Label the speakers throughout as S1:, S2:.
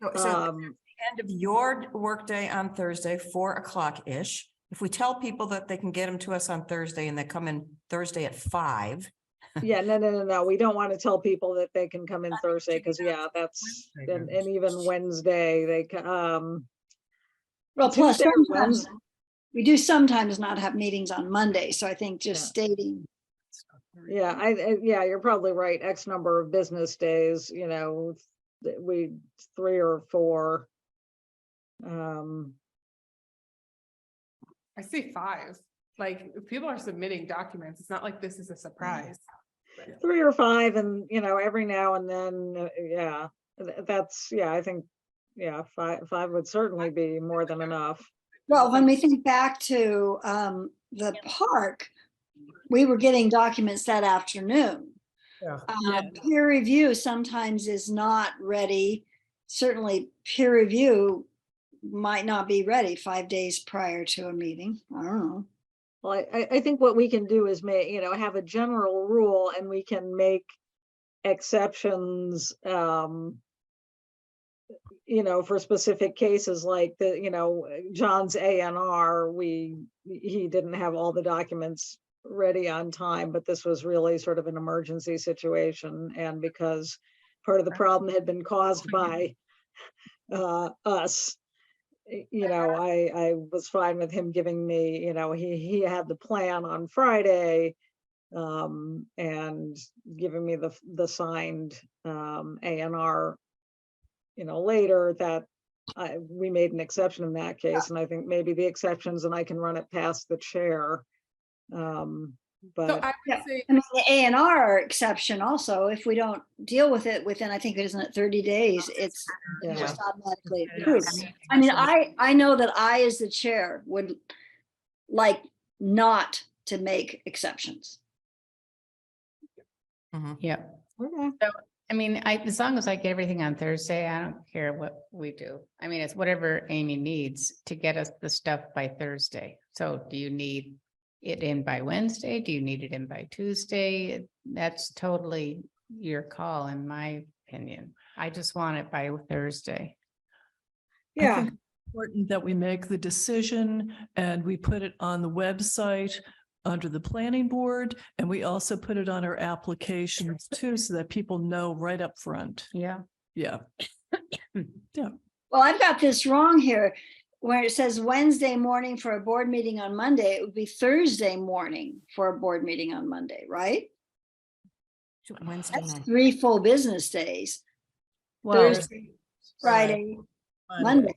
S1: No, so
S2: Um,
S1: end of your workday on Thursday, four o'clock-ish. If we tell people that they can get them to us on Thursday and they come in Thursday at five.
S2: yeah, no, no, no, no. We don't want to tell people that they can come in Thursday because yeah, that's,
S1: Wednesday,
S2: and, and even Wednesday, they, ca- um,
S3: Well, plus
S2: Tuesday or
S3: sometimes,
S2: Wednesday.
S3: we do sometimes not have meetings on Monday, so I think just stating,
S2: Yeah, I, I- yeah, you're probably right. X number of business days, you know, th- we, three or four. Um,
S4: I say five, like, if people are submitting documents, it's not like this is a surprise.
S2: three or five and, you know, every now and then, uh, yeah, th- that's, yeah, I think, yeah, five, five would certainly be more than enough.
S3: well, when we think back to um, the park, we were getting documents that afternoon.
S5: Yeah.
S3: Uh,
S4: Yeah.
S3: Peer review sometimes is not ready. Certainly peer review might not be ready five days prior to a meeting. I don't know.
S2: Well, I, I- I think what we can do is make, you know, have a general rule and we can make exceptions, um, you know, for specific cases like the, you know, John's A and R, we, he didn't have all the documents ready on time, but this was really sort of an emergency situation and because part of the problem had been caused by uh, us y- you know, I, I was fine with him giving me, you know, he, he had the plan on Friday. Um, and giving me the, f- the signed, um, A and R. You know, later that I, we made an exception in that case, and I think maybe the exceptions, and I can run it past the chair. Um,
S4: So
S2: but,
S4: I would
S3: Yeah.
S4: say,
S3: I mean, the A and R exception also, if we don't deal with it within, I think, isn't it thirty days, it's
S2: yeah,
S3: just automatically
S4: Yeah.
S3: approved. I mean, I, I know that I, as the chair, would like not to make exceptions.
S1: Mm-hmm.
S2: okay.
S6: I mean, I, as long as I get everything on Thursday, I don't care what we do. I mean, it's whatever Amy needs to get us the stuff by Thursday. So do you need it in by Wednesday? Do you need it in by Tuesday? That's totally your call, in my opinion. I just want it by Thursday.
S7: I
S2: yeah.
S7: think it's Important that we make the decision and we put it on the website under the planning board. And we also put it on our applications too, so that people know right up front.
S6: Yeah.
S7: Yeah.
S3: Well, I've got this wrong here, where it says Wednesday morning for a board meeting on Monday, it would be Thursday morning for a board meeting on Monday, right?
S1: Wednesday
S3: That's
S1: night.
S3: three full business days,
S6: Well,
S3: Thursday, Friday, Monday.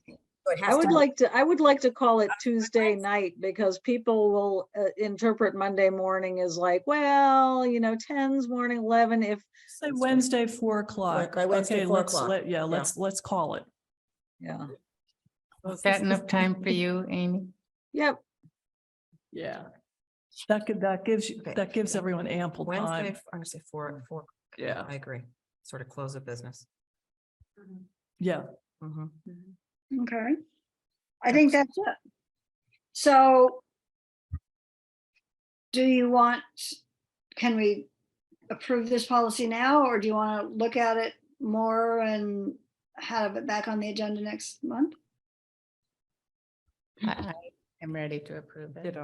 S2: I would like to, I would like to call it Tuesday night because people will uh, interpret Monday morning as like, well, you know, tens, morning, eleven, if,
S7: Say Wednesday, four o'clock.
S1: Like Wednesday,
S7: Okay,
S1: four
S7: let's
S1: o'clock.
S7: let- Yeah, let's, let's call it.
S2: yeah,
S6: is that enough time for you, Amy?
S2: yep.
S7: Yeah. That could, that gives, you-
S1: Okay.
S7: that gives everyone ample
S1: Wednesday,
S7: time.
S1: I'm gonna say four, four.
S7: Yeah,
S1: I agree. Sort of close of business.
S7: yeah.
S1: Mhm.
S3: Okay. I think that's it. So do you want, can we approve this policy now, or do you want to look at it more and have it back on the agenda next month?
S6: I I am ready to approve it.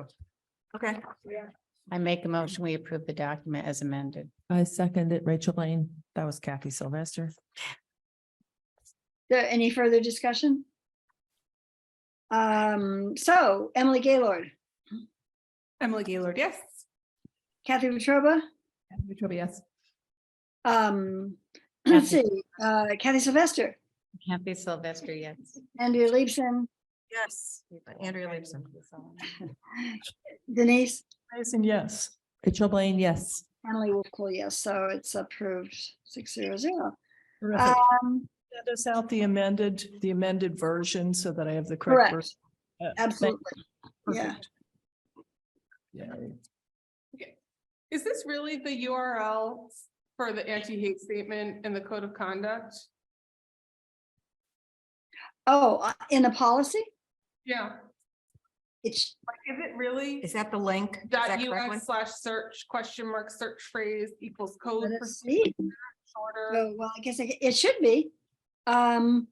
S1: Okay.
S6: I make a motion, we approve the document as amended.
S8: I second it, Rachel Lane. That was Kathy Sylvester.
S3: There, Uh, any further discussion? Um, so Emily Gaylord,
S4: Emily Gaylord, yes.
S3: Kathy Wetruba,
S4: Victoria, yes.
S3: um, let's see, uh, Kathy Sylvester,
S6: Kathy Sylvester, yes.
S3: Andrea Leibson,
S1: Yes. Andrea Leibson.
S3: Denise.
S7: Amazing, yes.
S8: Rachel Blaine, yes.
S3: Emily Wolf Cole, yes, so it's approved six zero zero.
S7: Terrific.
S3: Um,
S7: Send us out the amended, the amended version so that I have the correct.
S3: correct,
S7: version. Uh, thank-
S3: absolutely. Yeah,
S7: perfect. Yeah.
S4: Is this really the URL for the anti-hate statement and the code of conduct?
S3: oh, uh, in the policy,
S4: Yeah,
S3: it's,
S4: like, is it really?
S1: Is that the link? Is
S4: Dot
S1: that correct one?
S4: US slash search, question mark, search phrase equals code.
S3: Let
S4: for
S3: us see.
S4: Shorter.
S3: oh, well, I guess it it should be. Um,